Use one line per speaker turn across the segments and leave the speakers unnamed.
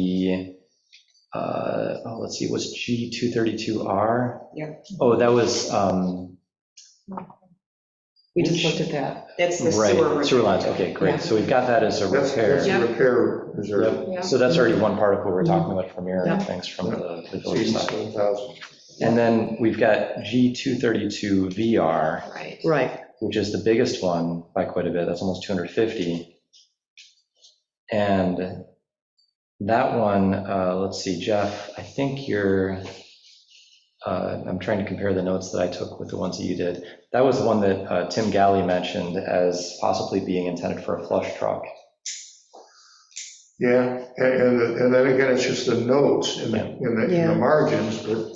the, uh, oh, let's see, was G232R?
Yeah.
Oh, that was, um,
We just looked at that.
That's the sewer.
right, sewer lines, okay,
Yeah.
great. So we've got that as a
That's, that's
repair.
the repair reserve.
Yep. So that's already one particle we're talking about from here,
Yeah.
thanks from the the village side.
Eighty-seven thousand.
And then we've got G232VR,
Right.
Right,
which is the biggest one by quite a bit, that's almost 250. And that one, uh, let's see, Jeff, I think you're, uh, I'm trying to compare the notes that I took with the ones that you did. That was the one that uh, Tim Galley mentioned as possibly being intended for a flush truck.
Yeah, and, and and then again, it's just the notes in the, in the, in
Yeah.
the margins, but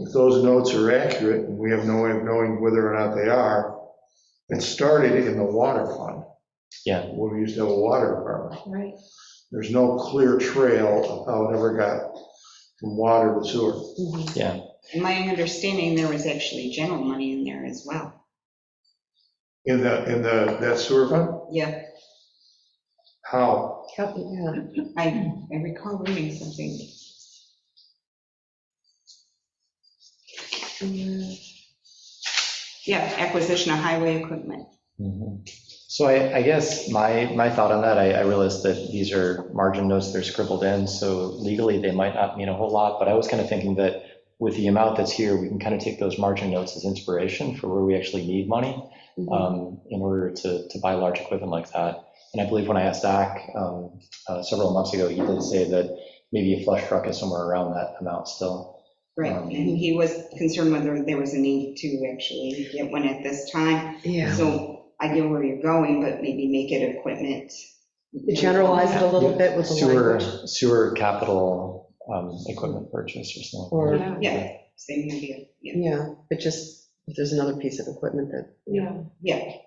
if those notes are accurate, and we have no way of knowing whether or not they are, it started in the water fund.
Yeah.
Where we used to have a water department.
Right.
There's no clear trail of how it ever got from water to sewer.
And Mm-hmm. my understanding, there was actually general money in there as well.
In the, in the, that sewer fund,
Yeah,
how?
Cap- yeah,
I, I recall reading something.
Mm-hmm.
Yeah, acquisition of highway equipment.
Mm-hmm. So I, I guess my, my thought on that, I, I realize that these are margin notes, they're scribbled in, so legally they might not mean a whole lot, but I was kind of thinking that with the amount that's here, we can kind of take those margin notes as inspiration for where we actually need money
mhm.
um, in order to, to buy large equipment like that. And I believe when I asked Zach um, uh, several months ago, he did say that maybe a flush truck is somewhere around that amount still.
Right, and he was concerned whether there was a need to actually get one at this time.
yeah.
So I get where you're going, but maybe make it equipment.
Generalize it a little bit with the
Sewer,
language.
sewer capital um, equipment purchase or something.
Or,
Yeah, same idea, yeah,
yeah, but just, if there's another piece of equipment that,
Yeah.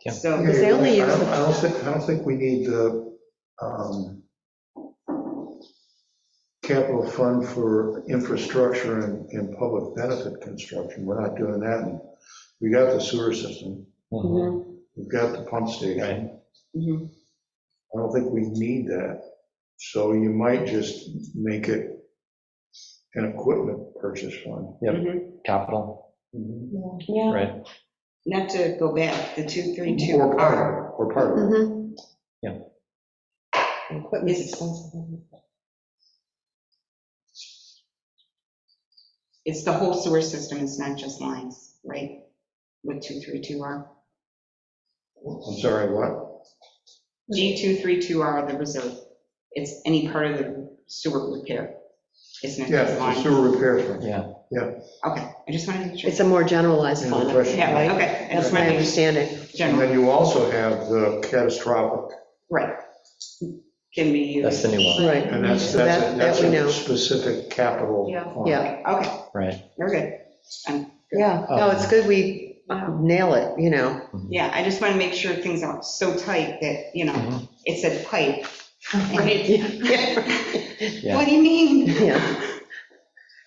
yeah. So,
Because they only
I
use
don't-
the-
I don't think, I don't think we need the um, capital fund for infrastructure and, and public benefit construction. We're not doing that. We got the sewer system,
Mhm.
Mm-hmm.
mm-hmm,
we've got the pump
Right.
station.
mhm,
I don't think we need that. So you might just make it an equipment purchase fund.
Yep.
mhm.
Capital,
Yeah,
right?
not to go back, the
Or
232 are,
part, of it, or part of it.
Mhm.
Yeah.
Equipment's
It's-
expensive.
it's the whole sewer system, it's not just lines, right? What 232R?
I'm sorry, what?
Mm-hmm.
G232R, the reserve, it's any part of the sewer repair, it's not
Yeah,
just
the
lines.
sewer repair fund.
Yeah,
Okay, I just wanted to. make sure.
It's a more generalized
Any other
fund,
questions?
Yeah,
right?
okay. I
That's
just
my
wanted to be
understanding.
And
General,
then you also have the catastrophic
right. Can be
that's
used.
the new one,
Right,
And that's,
So
that's, a-
that-
that's
that we know.
a specific capital.
Yeah.
fund.
yeah,
Okay,
right?
very good.
yeah. No, it's good we nail it, you know.
Mm-hmm.
Yeah, I just want to make sure things aren't so tight that, you know,
Mm-hmm.
Mhm.
it said pipe. and it-
Yeah.
Yeah.
What do you mean?
Yeah.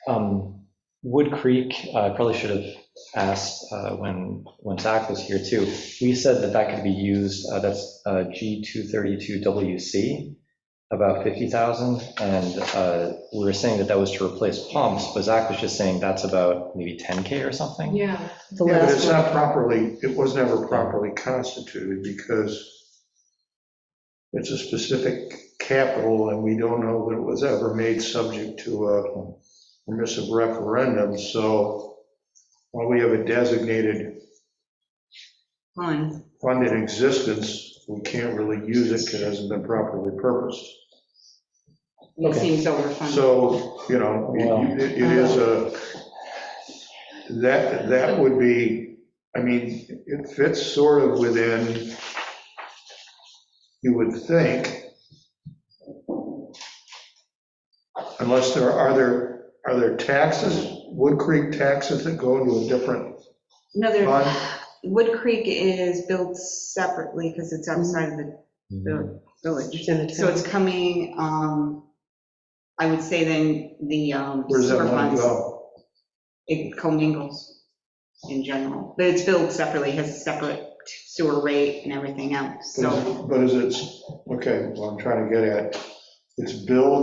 Um, Wood Creek, uh, I probably should have asked uh, when, when Zach was here too. We said that that could be used, uh, that's uh, G232WC, about 50,000. And uh, we were saying that that was to replace pumps, but Zach was just saying that's about maybe 10K or something.
yeah.
The
Yeah, but
last
it's
one.
not properly, it was never properly constituted because it's a specific capital and we don't know that it was ever made subject to a permissive referendum. So while we have a designated
Fun.
fund in existence, we can't really use it because it hasn't been properly purposed.
It
Okay.
seems overfunded.
So, you know, it it is a, that, that would be, I mean, it fits sort of within, you would think, unless there, are there, are there taxes, Wood Creek taxes that go into a different
Another,
fund?
Wood Creek is built separately because it's outside of the
Mm-hmm.
the village.
It's in the
So
town.
it's coming, um, I would say then the um,
Where does that
sewer
money
funds,
go?
it commingles in general. But it's built separately, has a separate sewer rate and everything else,
But
so.
is- But is it, okay, what I'm trying to get at, it's billed